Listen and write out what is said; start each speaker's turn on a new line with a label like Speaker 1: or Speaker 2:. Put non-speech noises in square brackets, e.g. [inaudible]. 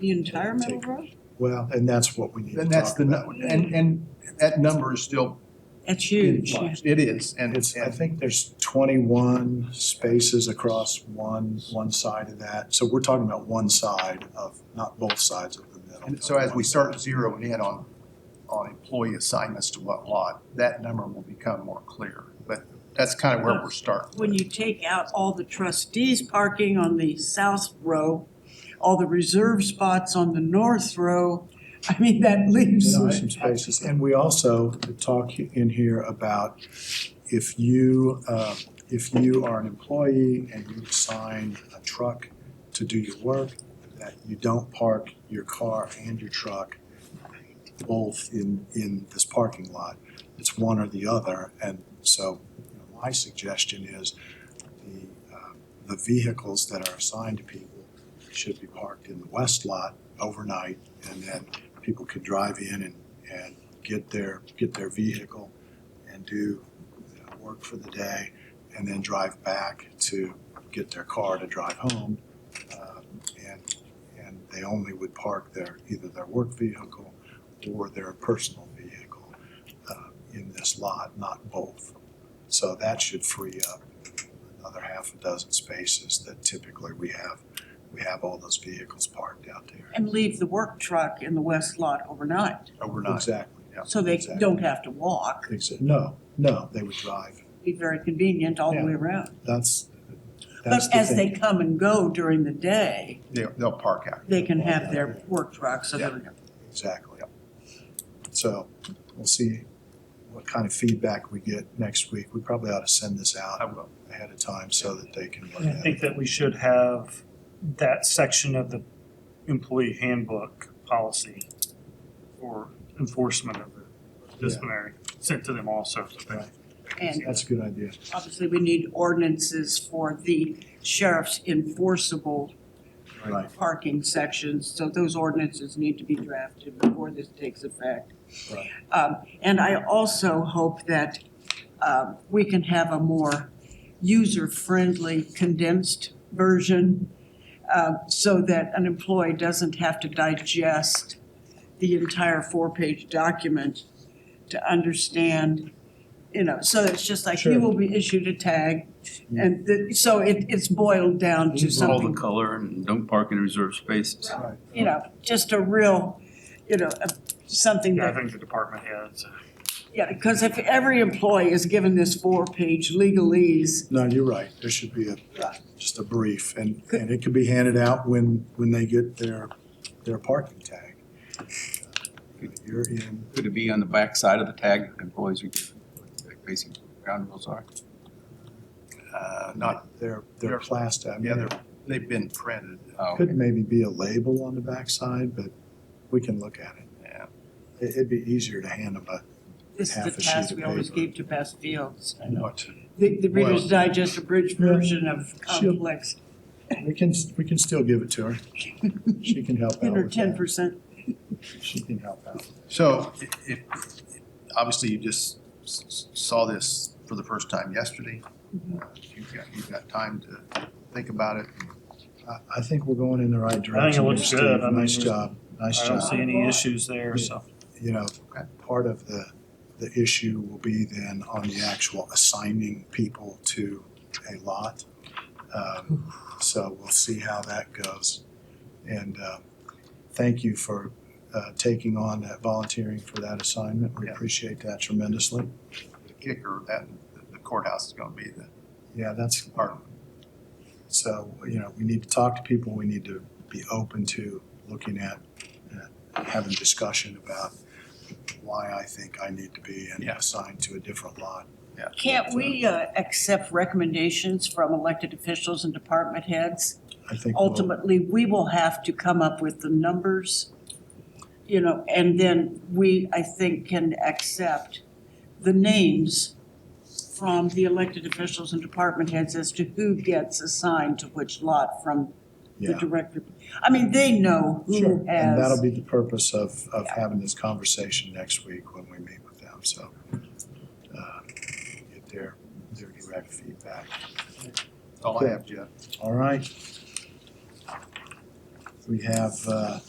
Speaker 1: the entire middle road?
Speaker 2: Well, and that's what we need to
Speaker 3: Then that's
Speaker 2: talk
Speaker 3: the,
Speaker 2: about.
Speaker 3: nu- and, and that number is still
Speaker 1: That's
Speaker 3: in
Speaker 1: huge.
Speaker 3: flux. It is, and it's,
Speaker 2: It's, I think there's twenty-one spaces across one, one side of that. So we're talking about one side of, not both sides of the middle.
Speaker 3: and so as we start zeroing in on, on employee assignments to what lot, that number will become more clear. But that's kind of where we're starting.
Speaker 1: When you take out all the trustees parking on the south row, all the reserve spots on the north row, I mean, that [laughs] leaves.
Speaker 2: There are some spaces, and we also talk in here about if you, uh, if you are an employee and you assign a truck to do your work, that you don't park your car and your truck both in, in this parking lot. It's one or the other, and so you know, my suggestion is the, uh, the vehicles that are assigned to people should be parked in the west lot overnight, and then people could drive in and, and get their, get their vehicle and do you know, work for the day and then drive back to get their car to drive home. Um, And, and they only would park their, either their work vehicle or their personal vehicle uh, in this lot, not both. So that should free up another half a dozen spaces that typically we have, we have all those vehicles parked out there
Speaker 1: And leave the work truck in the west lot overnight,
Speaker 3: overnight.
Speaker 2: Exactly, yeah.
Speaker 1: so they
Speaker 2: Exactly.
Speaker 1: don't have to walk.
Speaker 2: Exa- No, no, they would drive.
Speaker 1: Be very convenient all the
Speaker 2: Yeah.
Speaker 1: way around.
Speaker 2: That's,
Speaker 1: But
Speaker 2: that's the
Speaker 1: as they
Speaker 2: thing.
Speaker 1: come and go during the day,
Speaker 3: They'll, they'll park out.
Speaker 1: they can have their work trucks, so
Speaker 3: Yeah.
Speaker 1: they're-
Speaker 2: Exactly. So we'll see what kind of feedback we get next week. We probably ought to send this
Speaker 3: I
Speaker 2: out
Speaker 3: will.
Speaker 2: ahead of time so that they can look
Speaker 4: I
Speaker 2: at it.
Speaker 4: think that we should have that section of the employee handbook policy for enforcement of the disciplinary sent to them also.
Speaker 2: Right.
Speaker 1: and
Speaker 2: That's a good idea.
Speaker 1: Obviously, we need ordinances for the sheriff's enforceable
Speaker 2: Right.
Speaker 1: parking sections, so those ordinances need to be drafted before this takes effect.
Speaker 2: Right.
Speaker 1: Um, And I also hope that um, we can have a more user-friendly condensed version um, so that an employee doesn't have to digest the entire four-page document to understand, you know, so it's just like, you
Speaker 2: Sure.
Speaker 1: will be issued a tag. And the- so it, it's boiled down to
Speaker 2: Use all
Speaker 5: all the
Speaker 1: something
Speaker 5: color and don't park in reserved spaces.
Speaker 2: Right.
Speaker 1: you know, just a real, you know, a- something
Speaker 4: Yeah, I
Speaker 1: that,
Speaker 4: think the department heads.
Speaker 1: yeah, because if every employee is given this four-page legalese,
Speaker 2: No, you're right. There should be a, just a brief and, and it can be handed out when, when they get their, their parking tag. Uh, You're in,
Speaker 5: Could it be on the back side of the tag that employees are given, like basic ground rules are?
Speaker 3: Uh, not,
Speaker 2: they're, they're
Speaker 3: They're-
Speaker 2: plastic. I mean,
Speaker 3: yeah, they're, they've been printed.
Speaker 5: Oh,
Speaker 2: Could maybe be a label on the backside, but we can look at it.
Speaker 3: Yeah.
Speaker 2: It- It'd be easier to hand them a
Speaker 1: this is
Speaker 2: Half
Speaker 1: the
Speaker 2: a sheet
Speaker 1: task
Speaker 2: of
Speaker 1: we always
Speaker 2: paper.
Speaker 1: gave to Beth Fields.
Speaker 2: note.
Speaker 1: The, the Reader's
Speaker 2: Well-
Speaker 1: Digest abridged version of
Speaker 2: She'll-
Speaker 1: complex,
Speaker 2: We can, we can still give it to her. She can help out
Speaker 1: ten or
Speaker 2: with
Speaker 1: ten
Speaker 2: that.
Speaker 1: percent.
Speaker 2: She can help out.
Speaker 3: So i- if, obviously you just s- s- saw this for the first time yesterday. Uh, You've got, you've got time to think about it.
Speaker 2: I, I think we're going in the right direction.
Speaker 4: I think it looks
Speaker 2: Steve.
Speaker 4: good. I mean,
Speaker 2: Nice
Speaker 4: there's-
Speaker 2: job, nice
Speaker 4: I
Speaker 2: job.
Speaker 4: don't see any issues there, so.
Speaker 2: You know,
Speaker 3: Okay.
Speaker 2: part of the, the issue will be then on the actual assigning people to a lot. Um, So we'll see how that goes. And uh, thank you for uh, taking on that, volunteering for that assignment. We
Speaker 3: Yeah.
Speaker 2: appreciate that tremendously.
Speaker 3: The kicker, that, the courthouse is gonna be the
Speaker 2: Yeah, that's,
Speaker 3: part of
Speaker 2: so, you know, we need to talk to people. We need to be open to looking at, uh, having discussion about why I think I need to be in-
Speaker 3: Yeah.
Speaker 2: assigned to a different lot.
Speaker 1: Can't we, uh, accept recommendations from elected officials and department heads?
Speaker 2: I think we'll-
Speaker 1: ultimately, we will have to come up with the numbers, you know, and then we, I think, can accept the names from the elected officials and department heads as to who gets assigned to which lot from the
Speaker 2: yeah.
Speaker 1: director. I mean, they know
Speaker 2: Sure,
Speaker 1: who
Speaker 2: and that'll
Speaker 1: has,
Speaker 2: be the purpose of, of having this conversation next week when we meet with them, so. uh, Get their, their direct feedback.
Speaker 3: That's all I have, Jeff.
Speaker 2: All right. We have, uh,